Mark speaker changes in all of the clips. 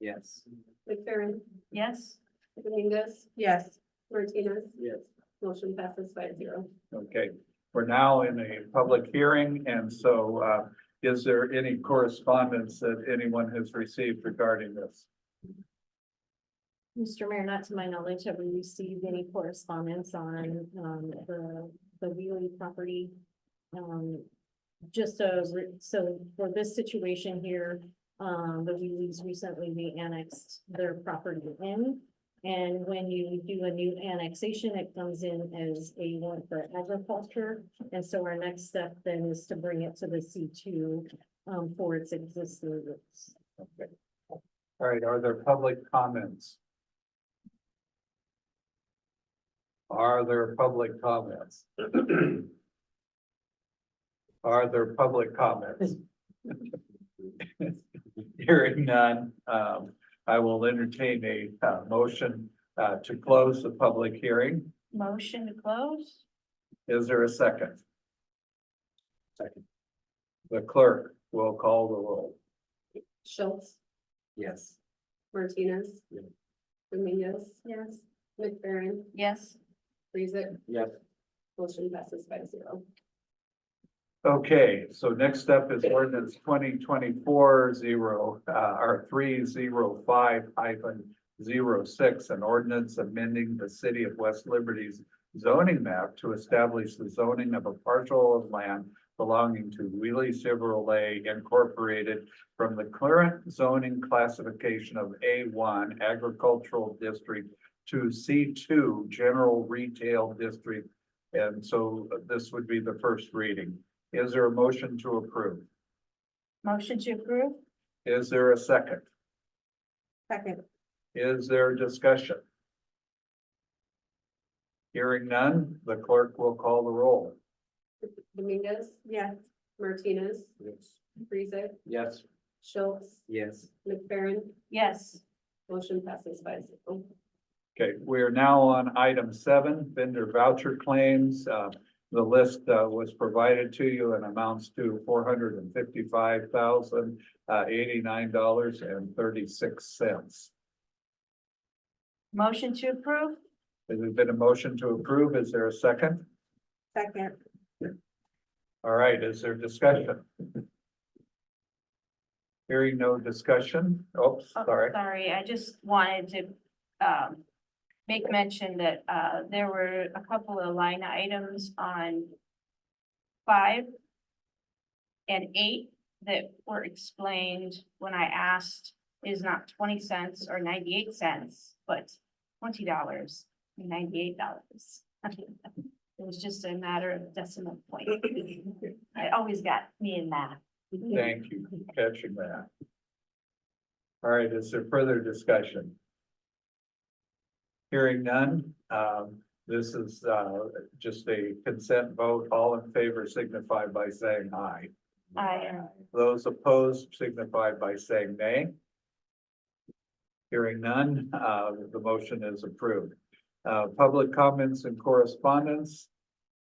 Speaker 1: Yes.
Speaker 2: McFerrin,
Speaker 3: Yes.
Speaker 2: Dominguez,
Speaker 4: Yes.
Speaker 2: Martinez,
Speaker 1: Yes.
Speaker 2: motion passes five zero.
Speaker 5: Okay, we're now in a public hearing, and so uh, is there any correspondence that anyone has received regarding this?
Speaker 6: Mr. Mayor, not to my knowledge, have we received any correspondence on, um, the, the Wheelie property? Um, just so, so for this situation here, um, the Wheelies recently re-annexed their property in. And when you do a new annexation, it comes in as a one for agriculture. And so our next step then is to bring it to the C two, um, for its existing roots.
Speaker 5: Okay. All right, are there public comments? Are there public comments? Are there public comments? Hearing none, um, I will entertain a, uh, motion, uh, to close the public hearing.
Speaker 3: Motion to close?
Speaker 5: Is there a second?
Speaker 1: Second.
Speaker 5: The clerk will call the roll.
Speaker 2: Schultz,
Speaker 1: Yes.
Speaker 2: Martinez,
Speaker 1: Yeah.
Speaker 2: Dominguez,
Speaker 6: Yes.
Speaker 2: McFerrin,
Speaker 3: Yes.
Speaker 2: Rethick,
Speaker 1: Yes.
Speaker 2: motion passes five zero.
Speaker 5: Okay, so next up is ordinance twenty twenty-four zero, uh, or three zero five hyphen zero six, an ordinance amending the city of West Liberty's zoning map to establish the zoning of a parcel of land belonging to Wheelie Chevrolet Incorporated from the current zoning classification of A one agricultural district to C two general retail district. And so this would be the first reading. Is there a motion to approve?
Speaker 3: Motion to approve?
Speaker 5: Is there a second?
Speaker 4: Second.
Speaker 5: Is there discussion? Hearing none, the clerk will call the roll.
Speaker 2: Dominguez,
Speaker 4: Yes.
Speaker 2: Martinez,
Speaker 1: Yes.
Speaker 2: Rethick,
Speaker 1: Yes.
Speaker 2: Schultz,
Speaker 1: Yes.
Speaker 2: McFerrin,
Speaker 3: Yes.
Speaker 2: motion passes five zero.
Speaker 5: Okay, we are now on item seven, vendor voucher claims. Uh, The list uh, was provided to you and amounts to four hundred and fifty-five thousand uh, eighty-nine dollars and thirty-six cents.
Speaker 3: Motion to approve?
Speaker 5: Has there been a motion to approve? Is there a second?
Speaker 4: Second.
Speaker 5: All right, is there discussion? Hearing no discussion, oops,
Speaker 3: Oh,
Speaker 5: sorry.
Speaker 3: Sorry, I just wanted to, um, make mention that, uh, there were a couple of line items on five and eight that were explained when I asked is not twenty cents or ninety-eight cents, but twenty dollars and ninety-eight dollars. It was just a matter of decimal point. I always got me in that.
Speaker 5: Thank you for catching that. All right, is there further discussion? Hearing none, um, this is, uh, just a consent vote. All in favor signify by saying aye.
Speaker 3: I,
Speaker 5: Those opposed signify by saying nay. Hearing none, uh, the motion is approved. Uh, public comments and correspondence.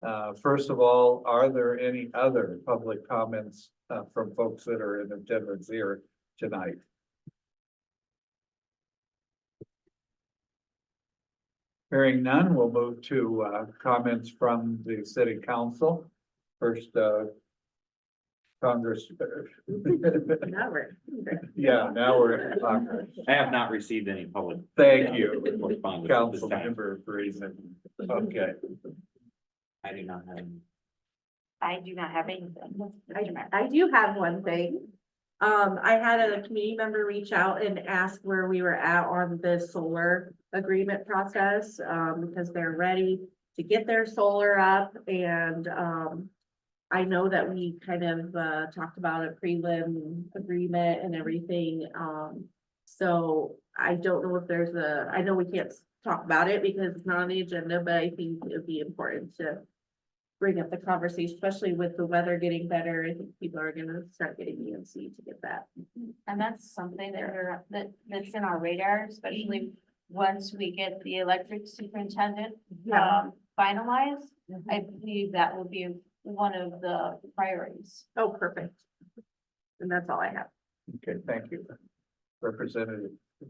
Speaker 5: Uh, first of all, are there any other public comments, uh, from folks that are in attendance here tonight? Hearing none, we'll move to, uh, comments from the city council. First, uh, Congress, uh,
Speaker 4: Now we're.
Speaker 5: yeah, now we're in Congress.
Speaker 1: I have not received any public
Speaker 5: Thank you,
Speaker 1: correspondence at this
Speaker 5: Council
Speaker 1: time.
Speaker 5: Member Friesen. Okay,
Speaker 1: I do not have. any.
Speaker 3: I do not have anything.
Speaker 4: I, I do have one thing. Um, I had a community member reach out and ask where we were at on the solar agreement process, um, because they're ready to get their solar up and, um, I know that we kind of, uh, talked about a prelim agreement and everything, um, so I don't know if there's a, I know we can't talk about it because it's not on the agenda, but I think it'd be important to bring up the conversation, especially with the weather getting better. I think people are gonna start getting EMC to get that.
Speaker 3: And that's something that are, that, that's in our radar, especially once we get the electric superintendent, um, finalized. I believe that will be one of the priorities.
Speaker 4: Oh, perfect. And that's all I have.
Speaker 5: okay, thank you. Representative